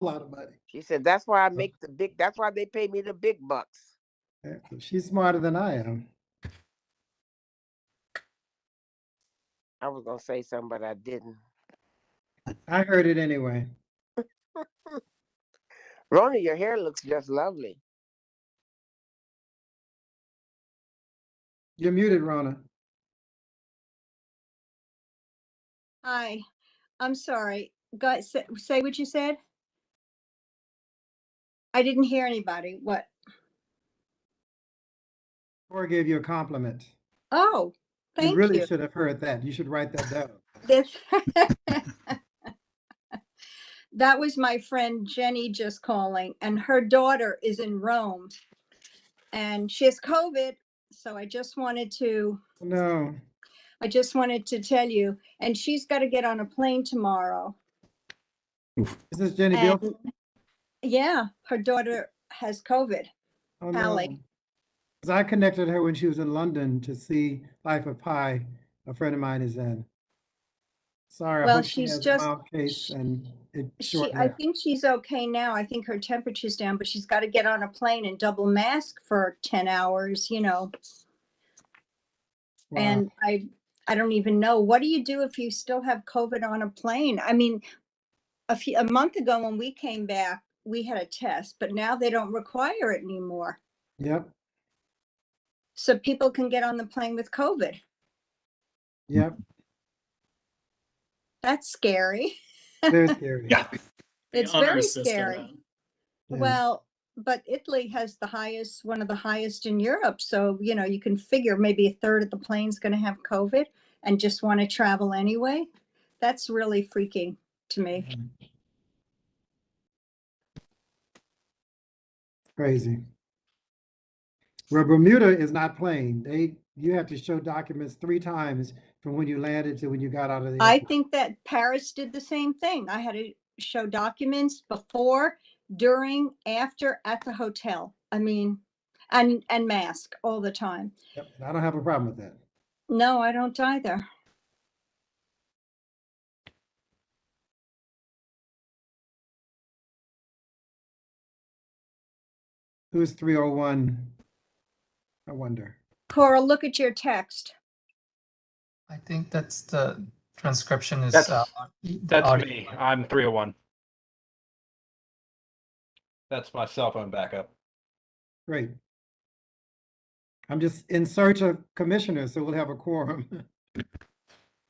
lot of money. She said, that's why I make the big, that's why they pay me the big bucks. Yeah, so She's smarter than I am. I was gonna say something, but I didn't. I heard it anyway. Rona, your hair looks just lovely. You're muted, Rona. Hi, I'm sorry. Guys, say- say what you said. I didn't hear anybody. What? Cora gave you a compliment. Oh, You thank really you. should have heard that. You should write that down. This- That was my friend Jenny just calling and her daughter is in Rome. And she has COVID, so I just wanted to No, I just wanted to tell you, and she's got to get on a plane tomorrow. is this Jenny And- Guilford? Yeah, her daughter has COVID. Oh, Hallie. no. 'Cause I connected her when she was in London to see Life of Pi, a friend of mine is in. Sorry, I Well, hope she she's has a just- mild case sh- and it's She, short. I think she's okay now. I think her temperature's down, but she's got to get on a plane and double mask for 10 hours, you know. And I, I don't even know. What do you do if you still have COVID on a plane? I mean, a few, a month ago when we came back, we had a test, but now they don't require it anymore. Yep, So people can get on the plane with COVID. yep, That's scary. very scary. Yeah. the It's honor very system. scary. Yeah. Well, but Italy has the highest, one of the highest in Europe. So, you know, you can figure maybe a third of the plane's going to have COVID and just want to travel anyway. That's really freaking to me. Crazy. Well, Bermuda is not playing. They, you have to show documents three times from when you landed to when you got out of the. I airport. think that Paris did the same thing. I had to show documents before, during, after, at the hotel. I mean, and and mask all the time. Yep, and I don't have a problem with that. No, I don't either. Who's three oh one? I wonder. Cora, look at your text. I think that's the transcription is. That's- uh, the That's audio. me. I'm 301. That's my cell phone backup. Great. I'm just in search of commissioners, so we'll have a quorum.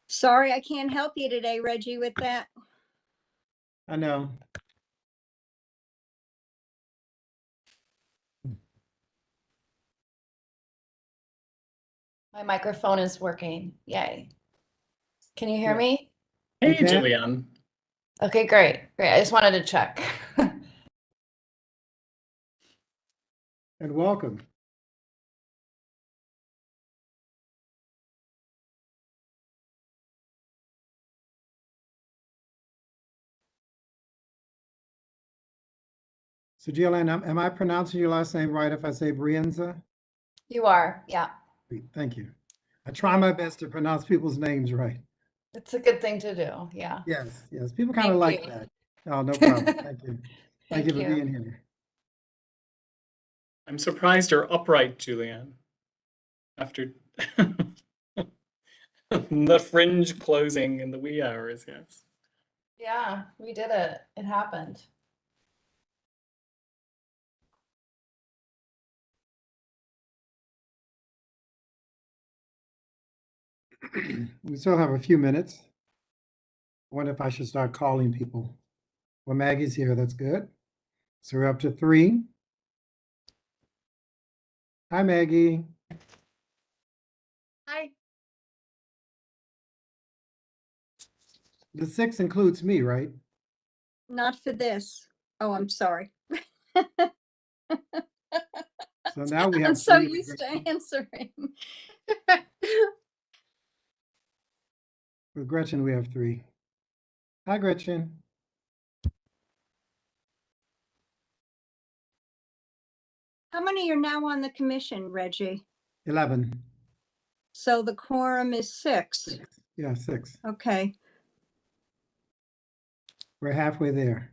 Sorry, I can't help you today, Reggie, with that. I know. My microphone is working. Yay. Can you hear Yeah. me? Hey, Okay. Jillian. Okay, great. Great. I just wanted to check. And welcome. So Jillian, am- am I pronouncing your last name right if I say Brienza? you are. Yeah. Thank you. I try my best to pronounce people's names right. It's a good thing to do. Yeah. Yes, yes, people kind of Thank like you. that. Oh, no problem. Thank you. Thank Thank you for you. being here. I'm surprised you're upright, Julianne. After the fringe closing in the wee hours, yes. Yeah. We did it. It happened. We still have a few minutes. Wonder if I should start calling people. Well, Maggie's here, that's good. So we're up to three. Hi, Maggie. Hi. The six includes me, right? Not for this. Oh, I'm sorry. So now we I'm have. so three to used Gretchen- to answering. With Gretchen, we have three. Hi, Gretchen. How many are now on the commission, Reggie? Eleven. So the quorum is six. Yeah, six. Okay. We're halfway there.